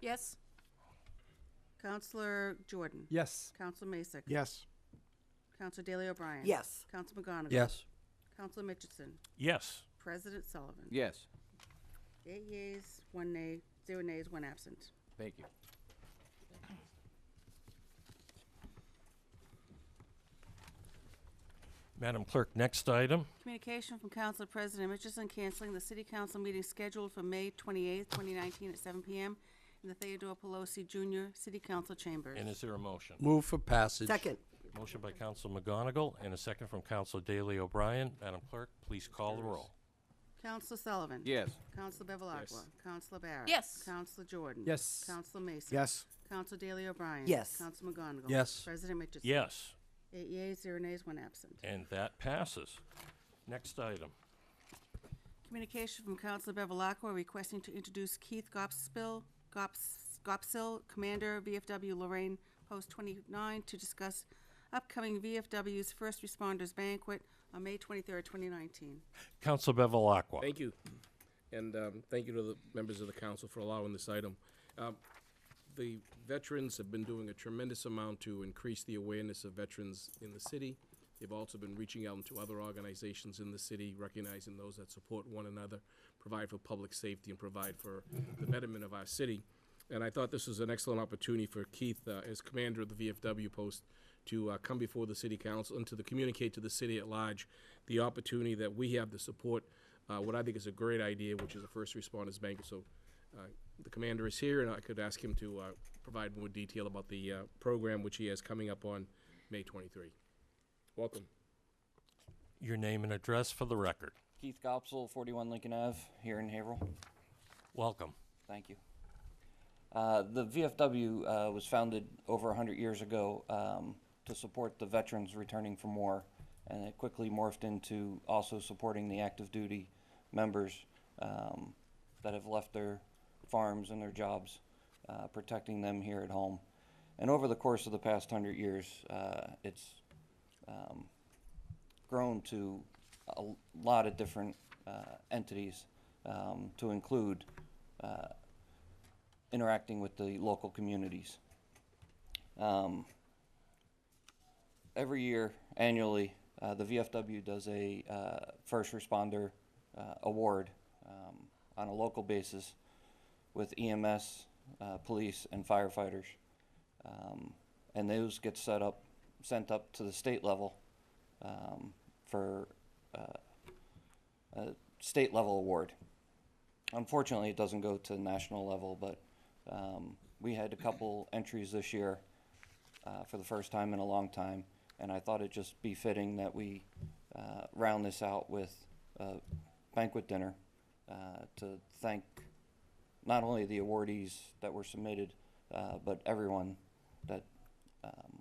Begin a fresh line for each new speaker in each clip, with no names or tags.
Yes. Counselor Jordan.
Yes.
Counselor Masek.
Yes.
Counselor Daley O'Brien.
Yes.
Counselor McGonigal.
Yes.
Counselor Mitchinson.
Yes.
President Sullivan.
Yes.
Eight yeas, one nay, zero nays, one absent.
Thank you.
Madam Clerk, next item.
Communication from Council President Mitchison canceling the city council meeting scheduled for May twenty-eighth, twenty nineteen at seven PM in the Theodore Pelosi Junior City Council Chambers.
And is there a motion?
Move for passage.
Second.
Motion by Counsel McGonigal and a second from Counsel Daley O'Brien. Madam Clerk, please call the roll.
Counselor Sullivan.
Yes.
Counselor Bevelacqua. Counselor Barrett.
Yes.
Counselor Jordan.
Yes.
Counselor Mason.
Yes.
Counselor Daley O'Brien.
Yes.
Counselor McGonigal.
Yes.
President Mitchell.
Yes,
Eight yeas, zero nays, one absent.
and that passes. Next item.
Communication from Counselor Bevelacqua requesting to introduce Keith Gopspill, Gops, Gopsill, Commander, VFW Lorraine Post twenty-nine, to discuss upcoming VFW's First Responders Banquet on May twenty-third, twenty nineteen.
Counsel Bevelacqua.
Thank you. And um, thank you to the members of the council for allowing this item. Um, The veterans have been doing a tremendous amount to increase the awareness of veterans in the city. They've also been reaching out to other organizations in the city, recognizing those that support one another, provide for public safety, and provide for the betterment of our city. And I thought this was an excellent opportunity for Keith, uh, as commander of the VFW post, to uh, come before the city council and to the- communicate to the city at large the opportunity that we have to support uh, what I think is a great idea, which is a first responders bank. So uh, the commander is here, and I could ask him to uh, provide more detail about the uh, program which he has coming up on May 23. Welcome.
Your name and address for the record.
Keith Gopsel, 41 Lincoln Ave, here in Haverhill.
Welcome.
Thank you. Uh, the VFW uh, was founded over 100 years ago um, to support the veterans returning from war, and it quickly morphed into also supporting the active duty members um, that have left their farms and their jobs, uh, protecting them here at home. And over the course of the past 100 years, uh, it's um, grown to a lot of different uh, entities um, to include uh, interacting with the local communities. Um, every year, annually, uh, the VFW does a uh, first responder uh, award um, on a local basis with EMS, uh, police, and firefighters. Um, and those get set up, sent up to the state level um, for uh, a state level award. Unfortunately, it doesn't go to the national level, but um, we had a couple entries this year uh, for the first time in a long time, and I thought it just be fitting that we uh, round this out with a banquet dinner uh, to thank not only the awardees that were submitted, uh, but everyone that um,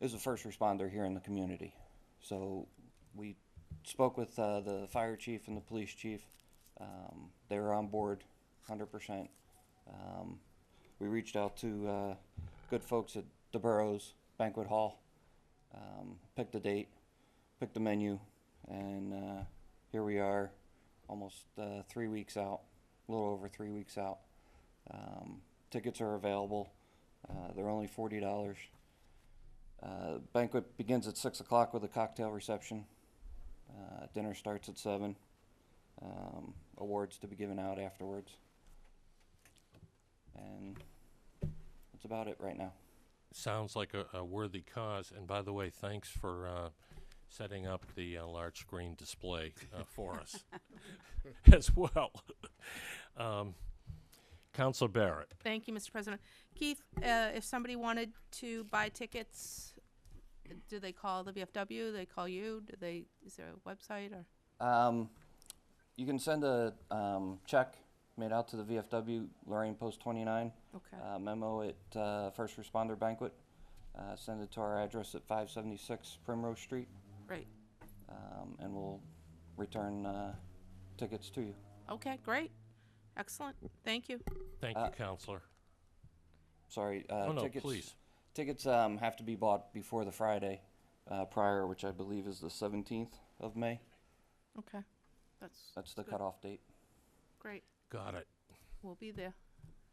is a first responder here in the community. So we spoke with uh, the fire chief and the police chief. Um, they were on board 100%. Um, we reached out to uh, good folks at the Burrows Banquet Hall, um, picked a date, picked a menu, and uh, here we are almost uh, three weeks out, a little over three weeks out. Um, tickets are available. Uh, they're only $40. Uh, banquet begins at six o'clock with a cocktail reception. Uh, dinner starts at seven. Um, awards to be given out afterwards. And that's about it right now.
Sounds like a, a worthy cause. And by the way, thanks for uh, setting up the uh, large screen display uh, for us as well. Um, Counsel Barrett.
Thank you, Mr. President. Keith, uh, if somebody wanted to buy tickets, do they call the VFW? They call you? Do they? Is there a website or?
Um, you can send a um, check made out to the VFW Lorraine Post 29
Okay.
uh, memo at uh, First Responder Banquet. Uh, send it to our address at 576 Primrose Street,
Great.
um, and we'll return uh, tickets to you.
Okay. Great. Excellent. Thank you.
Thank you, Counselor.
Sorry, uh,
Oh, no,
tickets.
please.
Tickets um, have to be bought before the Friday uh, prior, which I believe is the 17th of May.
Okay. That's
That's the
Good.
cutoff date.
great.
Got it.
We'll be there.